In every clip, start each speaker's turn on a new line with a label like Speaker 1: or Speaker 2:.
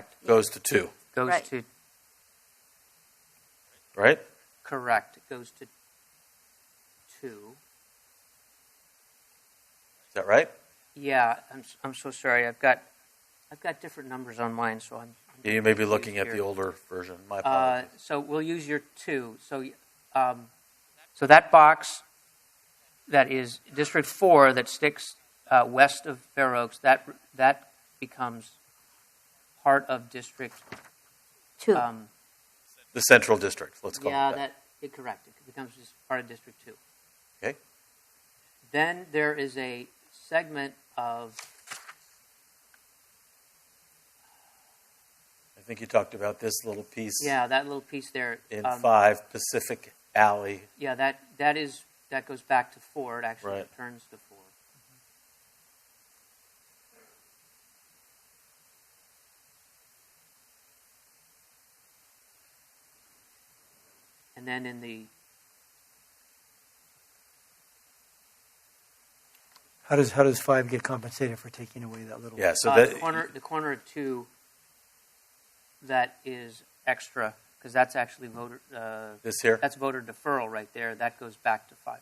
Speaker 1: Correct.
Speaker 2: goes to two,
Speaker 1: Goes
Speaker 3: Right.
Speaker 1: to
Speaker 2: right?
Speaker 1: correct. It goes to two.
Speaker 2: Is that right?
Speaker 1: Yeah, I'm s- I'm so sorry. I've got I've got different numbers on mine, so I'm. I'm
Speaker 2: You may be
Speaker 1: confused
Speaker 2: looking at
Speaker 1: here.
Speaker 2: the older version. My
Speaker 1: Uh,
Speaker 2: apologies.
Speaker 1: so we'll use your two. So, y- um, so that box that is District Four that sticks uh, west of Fair Oaks, that that becomes part of District.
Speaker 3: Two.
Speaker 1: Um,
Speaker 2: the central district. Let's call
Speaker 1: yeah,
Speaker 2: it that.
Speaker 1: that it correct. It becomes just part of District Two.
Speaker 2: Okay.
Speaker 1: Then there is a segment of
Speaker 2: I think you talked about this little piece
Speaker 1: yeah that little piece there.
Speaker 2: in
Speaker 1: um,
Speaker 2: five Pacific Alley.
Speaker 1: Yeah, that that is that goes back to four. It actually
Speaker 2: Right.
Speaker 1: returns to four. And then in the
Speaker 4: How does, how does five get compensated for taking away that little?
Speaker 2: Yeah. So
Speaker 1: uh,
Speaker 2: that
Speaker 1: the corner the corner of two that is extra because that's actually voter uh,
Speaker 2: this here.
Speaker 1: that's voter deferral right there. That goes back to five.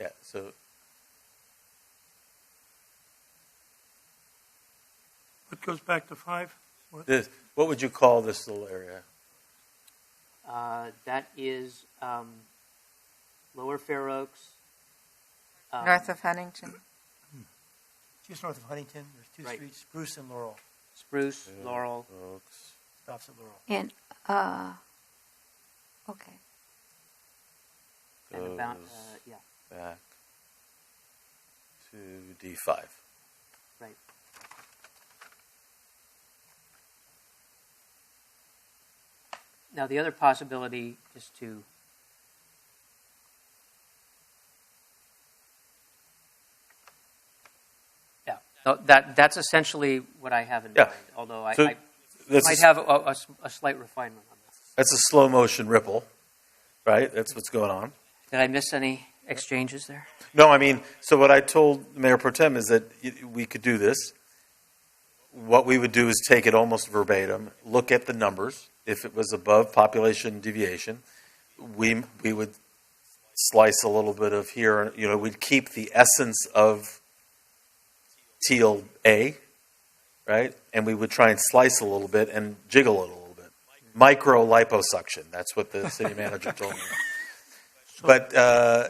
Speaker 2: Yeah. So
Speaker 5: What goes back to five?
Speaker 2: this. What would you call this little area?
Speaker 1: Uh, that is um, Lower Fair Oaks. um,
Speaker 3: North of Huntington.
Speaker 4: Just north of Huntington, there's two
Speaker 1: Right.
Speaker 4: streets, Spruce and Laurel,
Speaker 1: Spruce, Laurel.
Speaker 2: Oaks.
Speaker 4: stops at Laurel.
Speaker 3: And, uh, okay.
Speaker 1: and about uh,
Speaker 2: Goes
Speaker 1: yeah,
Speaker 2: back to D five.
Speaker 1: right. Now the other possibility is to yeah, tho- that that's essentially what I have in
Speaker 2: Yeah.
Speaker 1: mind. Although I,
Speaker 2: So
Speaker 1: I
Speaker 2: That's
Speaker 1: might
Speaker 2: a,
Speaker 1: have a, a s- a slight refinement on that.
Speaker 2: that's a slow motion ripple, right? That's what's going on.
Speaker 1: Did I miss any exchanges there?
Speaker 2: No, I mean, so what I told Mayor Protem is that y- we could do this. What we would do is take it almost verbatim, look at the numbers. If it was above population deviation, we, we would slice a little bit of here, you know, we'd keep the essence of teal A, right? And we would try and slice a little bit and jiggle it a little bit. Micro liposuction, that's what the city manager told me. But, uh,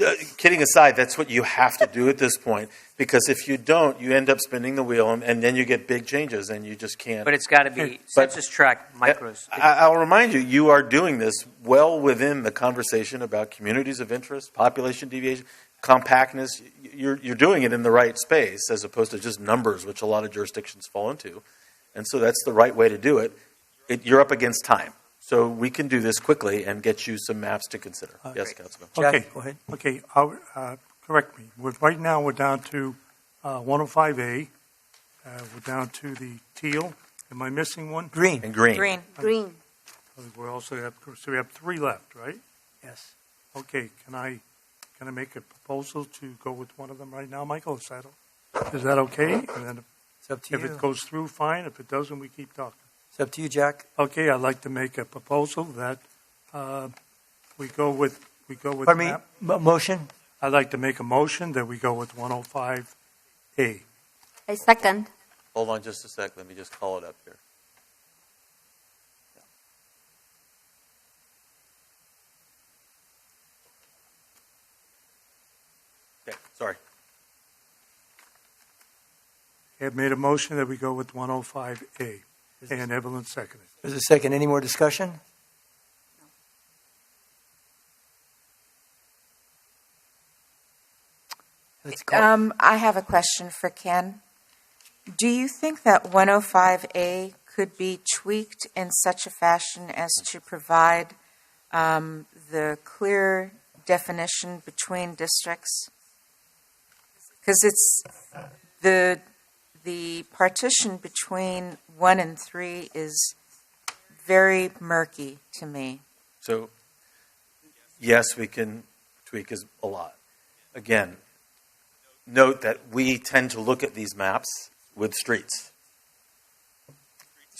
Speaker 2: uh, Kidding aside, that's what you have to do at this point because if you don't, you end up spinning the wheel and, and then you get big changes and you just can't.
Speaker 1: But it's got to be
Speaker 2: But-
Speaker 1: census tract micros.
Speaker 2: I, I'll remind you, you are doing this well within the conversation about communities of interest, population deviation, compactness. Y- You're, you're doing it in the right space as opposed to just numbers, which a lot of jurisdictions fall into. And so that's the right way to do it. it you're up against time. So we can do this quickly and get you some maps to consider. yes, Councilman.
Speaker 4: Jack,
Speaker 5: Okay.
Speaker 4: go ahead.
Speaker 5: Okay, I'll, uh, correct me. We're, right now, we're down to uh, 105A. Uh, we're down to the teal. Am I missing one?
Speaker 4: Green,
Speaker 2: And green.
Speaker 3: Green. Green.
Speaker 5: We also have, so we have three left, right?
Speaker 4: yes.
Speaker 5: Okay, can I, can I make a proposal to go with one of them right now, Michael? Is that, is that okay? And then
Speaker 4: It's up to
Speaker 5: if
Speaker 4: you.
Speaker 5: it goes through, fine. If it doesn't, we keep talking.
Speaker 4: It's up to you, Jack.
Speaker 5: Okay, I'd like to make a proposal that uh, we go with, we go with
Speaker 4: Pardon me,
Speaker 5: map-
Speaker 4: mo- motion?
Speaker 5: I'd like to make a motion that we go with 105A.
Speaker 3: I second.
Speaker 2: Hold on just a sec. Let me just call it up here. Okay, sorry.
Speaker 5: I've made a motion that we go with 105A, and Evelyn seconded.
Speaker 4: There's a second, any more discussion? Let's call,
Speaker 6: Um, I have a question for Ken. Do you think that 105A could be tweaked in such a fashion as to provide um, the clear definition between districts? Because it's the the partition between one and three is very murky to me.
Speaker 2: So, yes, we can tweak as a lot. Again, note that we tend to look at these maps with streets.